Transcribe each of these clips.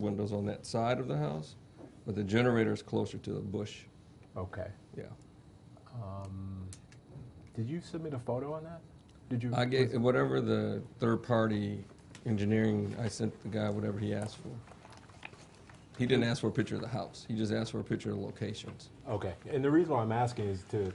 windows on that side of the house, but the generator is closer to the bush, Okay. yeah. Um, Did you submit a photo on that? Did you? I was- gave, whatever the third-party engineering, I sent the guy whatever he asked for. He didn't ask for a picture of the house, he just asked for a picture of locations. Okay, and the reason why I'm asking is to,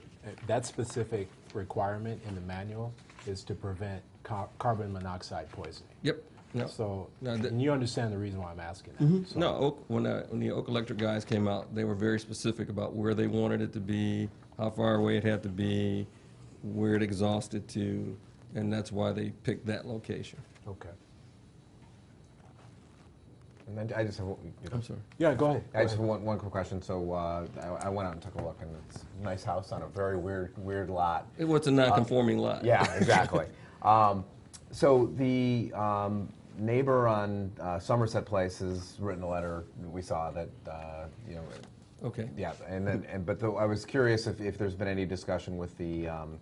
that specific requirement in the manual is to prevent ca- carbon monoxide poisoning. Yep, no, So, No, that- and you understand the reason why I'm asking that. so- no, Oak, when, uh, when the Oak Electric guys came out, they were very specific about where they wanted it to be, how far away it had to be, where it exhausted to, and that's why they picked that location. Okay. And then I just have, one- you know, I'm sorry. Yeah, go ahead. I go just have ahead. one, one quick question. So uh, I, I went out and took a look, and it's a nice house on a very weird, weird lot. It was a non-conforming lot. Yeah, exactly. um, so the um, neighbor on uh, Somerset Place has written a letter. We saw that, uh, you know, Okay. yeah. And then, and but though I was curious if, if there's been any discussion with the um,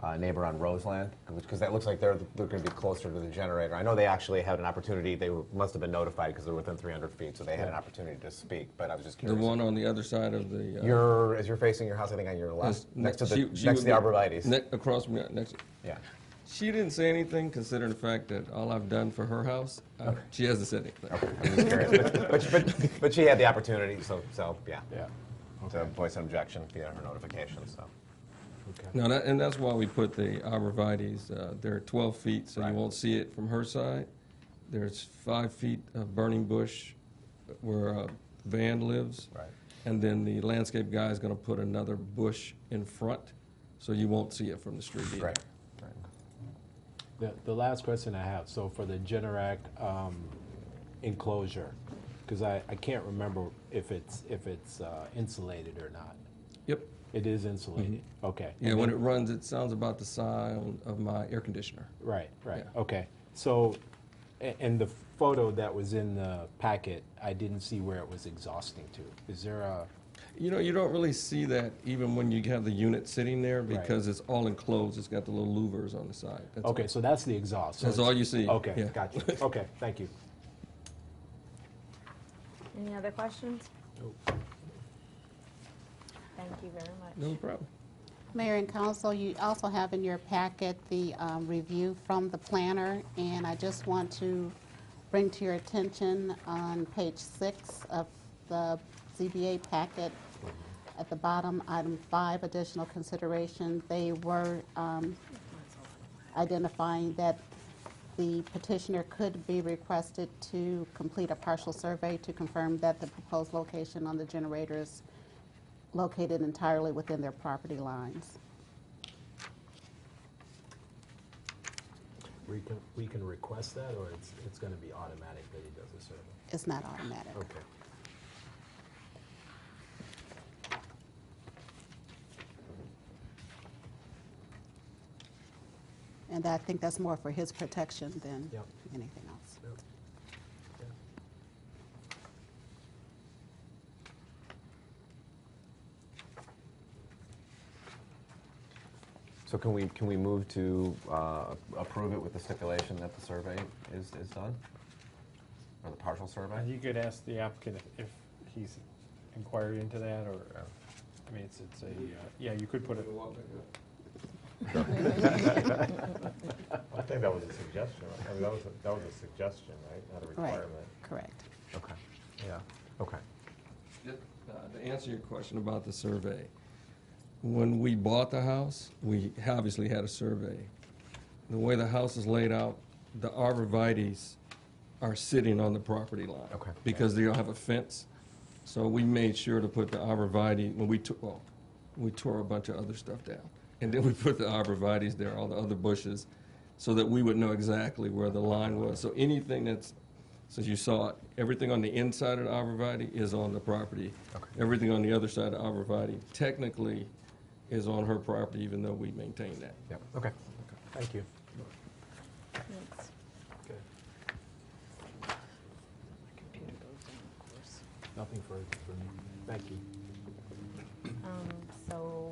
uh, neighbor on Roseland, because that looks like they're they're going to be closer to the generator. I know they actually had an opportunity. They were, must have been notified because they're within 300 feet, so they had an opportunity to speak. But I was just The curious. one on the other side of the. uh, You're as you're facing your house, I think on your left, is next to the she- she next to would the be arborvitaes. ne- Across from, the- next, yeah. she didn't say anything considering the fact that all I've done for her house, uh, she hasn't said anything. I'm just curious. but, but, but, but she had the opportunity, so so yeah, Yeah, to voice an objection via her notification. So okay. No, that, and that's why we put the arborvitaes, uh, they're twelve feet, so you Right. won't see it from her side. There's five feet of burning bush where uh, Van lives. Right. And then the landscape guy is gonna put another bush in front, so you won't see it from the street either. right, right. The, the last question I have, so for the Generac um, enclosure, because I, I can't remember if it's, if it's uh, insulated or not. Yep. It is Mm-hmm. insulated, okay. Yeah, when it runs, it sounds about the sound of my air conditioner. Right, right, Yeah. okay. So, a- and the photo that was in the packet, I didn't see where it was exhausting to. Is there a, You know, you don't really see that even when you have the unit sitting there Right. because it's all enclosed. It's got the little louvers on the side. That's all. okay, so that's the exhaust. so That's it's- all you see, yeah. Okay, gotcha. Okay, thank you. Any other questions? Oh, Thank you very much. No problem. Mayor and council, you also have in your packet the um, review from the planner, and I just want to bring to your attention on page six of the ZBA packet, at the bottom, item five, additional consideration, they were um, identifying that the petitioner could be requested to complete a partial survey to confirm that the proposed location on the generator is located entirely within their property lines. We can, we can request that, or it's, it's gonna be automatic that he does a survey? It's not automatic. Okay. And I think that's more for his protection than Yep. anything else. Yep. Okay. So can we can we move to uh, approve it with the stipulation that the survey is, is done, or the partial survey? Uh, You could ask the applicant if if he's inquired into that, or, uh, I mean, it's, it's a, uh, yeah, you could put it, I think that was a suggestion, right? I mean, that was, a- that was a suggestion, right? Not a Right, requirement. correct. Okay. Yeah. Okay. Uh, To answer your question about the survey, when we bought the house, we obviously had a survey. The way the house is laid out, the arborvitaes are sitting on the property line. Okay. Because they don't have a fence. So we made sure to put the arborvitae, when we took, well, we tore a bunch of other stuff down. And then we put the arborvitaes there, all the other bushes, so that we would know exactly where the line was. So anything that's, since you saw it, everything on the inside of the arborvitae is on the property. Okay. Everything on the other side of the arborvitae technically is on her property, even though we maintain that. Yep. Okay. Thank you. Thanks. Okay. Nothing further for me. Thank you. Um, So